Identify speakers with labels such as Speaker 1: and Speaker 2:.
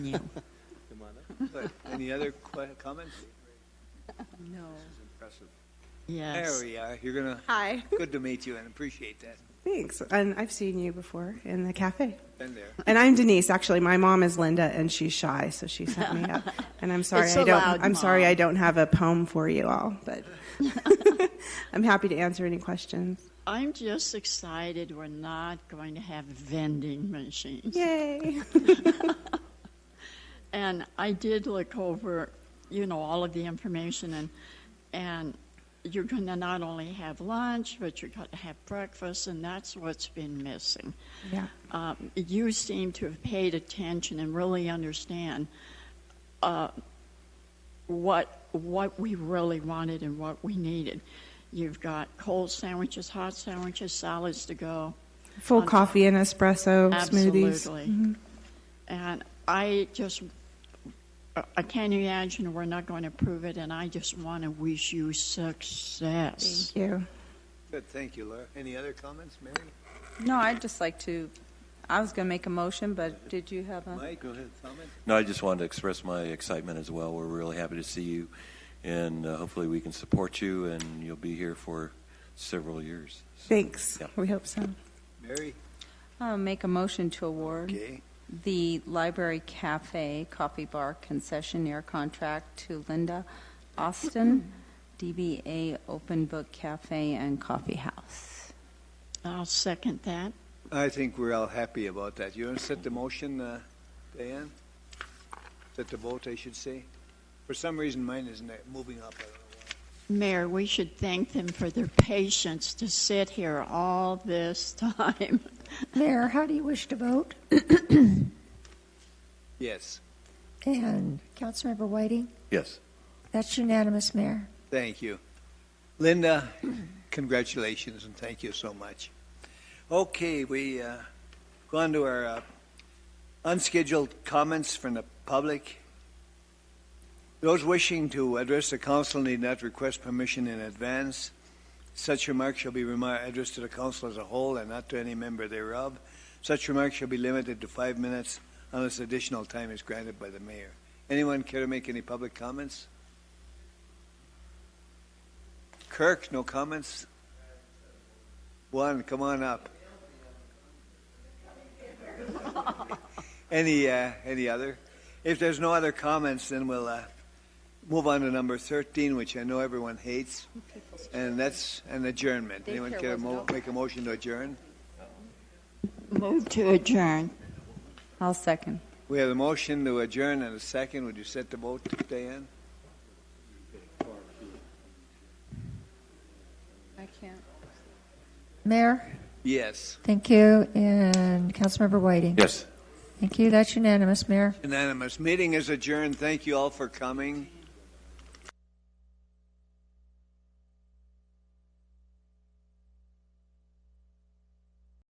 Speaker 1: you.
Speaker 2: Come on up. But Any other que- comments?
Speaker 3: No.
Speaker 2: Impressive. There
Speaker 1: Yes.
Speaker 2: we are. You're gonna,
Speaker 3: Hi.
Speaker 2: good to meet you and appreciate that.
Speaker 3: Thanks. And I've seen you before in the cafe.
Speaker 2: Been there.
Speaker 3: And I'm Denise. Actually, my mom is Linda, and she's shy, so she set me up. And I'm sorry
Speaker 1: It's
Speaker 3: I don't.
Speaker 1: allowed,
Speaker 3: I'm sorry
Speaker 1: Mom.
Speaker 3: I don't have a poem for you all, but I'm happy to answer any questions.
Speaker 1: I'm just excited we're not going to have vending machines.
Speaker 3: Yay!
Speaker 1: And I did look over, you know, all of the information and, and you're going to not only have lunch, but you're going to have breakfast, and that's what's been missing.
Speaker 3: Yeah.
Speaker 1: Um, you seem to have paid attention and really understand uh, what what we really wanted and what we needed. You've got cold sandwiches, hot sandwiches, salads to go.
Speaker 3: Full
Speaker 1: Um,
Speaker 3: coffee and espresso smoothies. Mm-hmm.
Speaker 1: Absolutely. And I just, I- I can't imagine we're not going to prove it, and I just want to wish you success.
Speaker 3: Thank you.
Speaker 2: Good, thank you, Laura. Any other comments, Mary?
Speaker 4: No, I'd just like to, I was going to make a motion, but did you have
Speaker 3: Uh-huh.
Speaker 4: a?
Speaker 2: Mike, go ahead, comment?
Speaker 5: No, I just wanted to express my excitement as well. We're really happy to see you, and uh, hopefully we can support you, and you'll be here for several years.
Speaker 3: Thanks.
Speaker 5: Yeah.
Speaker 3: We hope so.
Speaker 2: Mary?
Speaker 4: I'll make a motion to award
Speaker 2: Okay.
Speaker 4: the Library Cafe Coffee Bar concessionaire contract to Linda Austin, DBA Open Book Cafe and Coffee House.
Speaker 1: I'll second that.
Speaker 2: I think we're all happy about that. You want to set the motion, uh, Diane? Set the vote, I should say? For some reason, mine isn't uh, moving up. I don't know why.
Speaker 1: Mayor, we should thank them for their patience to sit here all this time.
Speaker 6: Mayor, how do you wish to vote?
Speaker 2: Yes,
Speaker 6: And Councilmember Whiting?
Speaker 5: Yes.
Speaker 6: That's unanimous, Mayor.
Speaker 2: thank you. Linda, congratulations and thank you so much. Okay, we uh, go on to our uh, unscheduled comments from the public. Those wishing to address the council need not request permission in advance. Such remarks shall be remar- addressed to the council as a whole and not to any member thereof. Such remarks shall be limited to five minutes unless additional time is granted by the mayor. Anyone care to make any public comments? Kirk, no comments? Juan, come on up. Any, uh, any other? If there's no other comments, then we'll, uh, move on to number thirteen, which I know everyone hates. And that's an adjournment. Anyone care to mo- make a motion to adjourn?
Speaker 1: Move to adjourn.
Speaker 4: I'll second.
Speaker 2: We have a motion to adjourn and a second. Would you set the vote, Diane?
Speaker 4: I can't.
Speaker 6: Mayor,
Speaker 2: Yes.
Speaker 6: thank you, and Councilmember Whiting?
Speaker 5: Yes.
Speaker 6: Thank you, that's unanimous, Mayor.
Speaker 2: Unanimous. Meeting is adjourned. Thank you all for coming.